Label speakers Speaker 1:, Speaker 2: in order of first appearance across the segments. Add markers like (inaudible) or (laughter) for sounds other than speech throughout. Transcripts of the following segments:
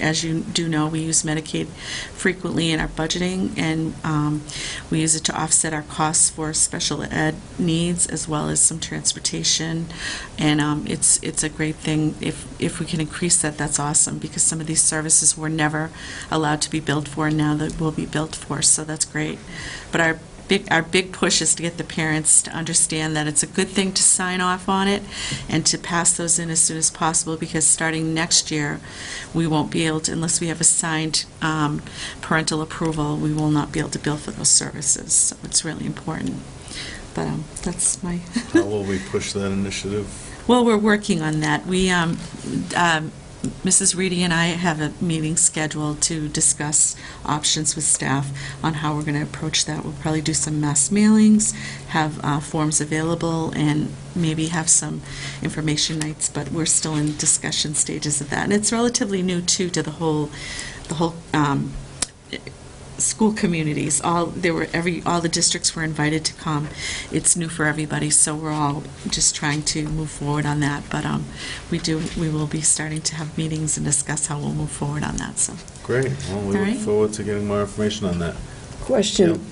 Speaker 1: As you do know, we use Medicaid frequently in our budgeting, and um, we use it to offset our costs for special ed needs, as well as some transportation. And um, it's, it's a great thing. If, if we can increase that, that's awesome, because some of these services were never allowed to be billed for, and now that will be billed for, so that's great. But our big, our big push is to get the parents to understand that it's a good thing to sign off on it and to pass those in as soon as possible, because starting next year, we won't be able to, unless we have a signed um, parental approval, we will not be able to bill for those services. So it's really important. But um, that's my,
Speaker 2: How will we push that initiative?
Speaker 1: well, we're working on that. We, um, um, Mrs. Reedy and I have a meeting scheduled to discuss options with staff on how we're going to approach that. We'll probably do some mass mailings, have uh, forms available, and maybe have some information nights, but we're still in discussion stages of that. And it's relatively new, too, to the whole, the whole um, school communities. All, there were, every, all the districts were invited to come. It's new for everybody, so we're all just trying to move forward on that. But um, we do, we will be starting to have meetings and discuss how we'll move forward on that, so.
Speaker 2: Great, well, we
Speaker 1: All
Speaker 2: look
Speaker 1: right.
Speaker 2: forward to getting more information on that.
Speaker 3: Question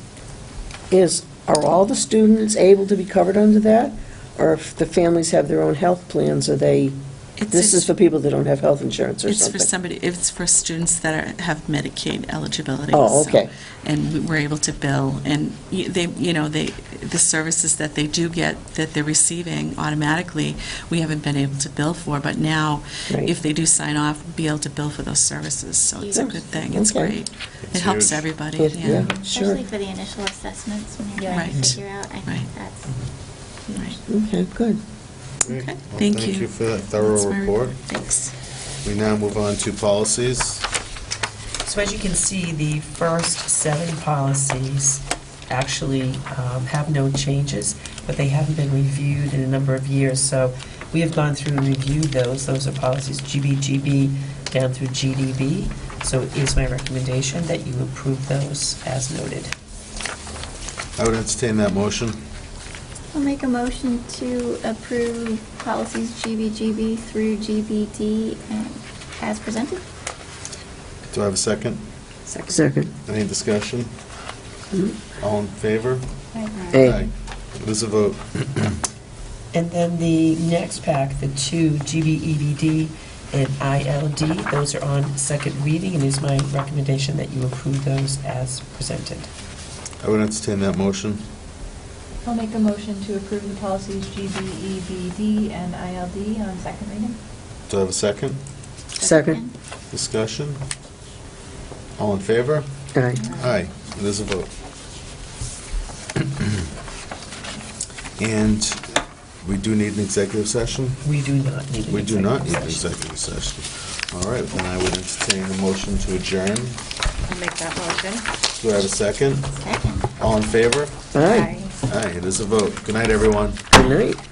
Speaker 3: is, are all the students able to be covered under that? Or if the families have their own health plans, are they,
Speaker 1: It's-
Speaker 3: this is for people that don't have health insurance or
Speaker 1: It's for
Speaker 3: something?
Speaker 1: somebody, it's for students that are- have Medicaid eligibility.
Speaker 3: Oh,
Speaker 1: so-
Speaker 3: okay.
Speaker 1: And we we're able to bill, and y- they, you know, they, the services that they do get, that they're receiving automatically, we haven't been able to bill for, but now,
Speaker 3: Right.
Speaker 1: if they do sign off, we'll be able to bill for those services, so it's a good thing, it's
Speaker 3: Okay.
Speaker 1: great. It
Speaker 2: It's
Speaker 1: helps
Speaker 2: huge.
Speaker 1: everybody,
Speaker 3: It-
Speaker 1: yeah.
Speaker 3: yeah, Sure.
Speaker 4: Especially for the initial assessments, when you're
Speaker 5: Yeah.
Speaker 4: trying to
Speaker 1: Right.
Speaker 4: figure out, I
Speaker 1: Right.
Speaker 4: think that's
Speaker 1: Right.
Speaker 3: Okay, good.
Speaker 2: Great.
Speaker 1: Okay,
Speaker 2: Well,
Speaker 1: thank
Speaker 2: Thank
Speaker 1: you.
Speaker 2: you for that thorough
Speaker 1: That's my
Speaker 2: report.
Speaker 1: Thanks.
Speaker 2: We now move on to policies.
Speaker 5: So as you can see, the first seven policies actually um, have no changes, but they haven't been reviewed in a number of years. So we have gone through and reviewed those. Those are policies GBGB down through GDB. So it is my recommendation that you approve those as noted.
Speaker 2: I would entertain that motion.
Speaker 4: I'll make a motion to approve policies GBGB through GBD um, as presented.
Speaker 2: Do I have a second?
Speaker 3: Second.
Speaker 2: Any discussion?
Speaker 1: Mm-hmm.
Speaker 2: All in favor?
Speaker 3: Aye.
Speaker 2: It is a vote.
Speaker 5: And then the next pack, the two GBEBD and ILD, those are on second reading, and it is my recommendation that you approve those as presented.
Speaker 2: I would entertain that motion.
Speaker 6: I'll make a motion to approve the policies GBEBD and ILD on second reading.
Speaker 2: Do I have a second?
Speaker 3: Second.
Speaker 2: Discussion? All in favor?
Speaker 3: Aye.
Speaker 2: Aye, it is a vote. (clears throat) And we do need an executive session?
Speaker 5: We do not need an
Speaker 2: We do not need an
Speaker 5: executive session.
Speaker 2: executive session. All right, then I would entertain a motion to adjourn.
Speaker 7: I'll make that motion.
Speaker 2: Do I have a second?
Speaker 4: Second.
Speaker 2: All in favor?
Speaker 3: Aye.
Speaker 2: Aye, it is a vote. Good night, everyone.
Speaker 3: Good night.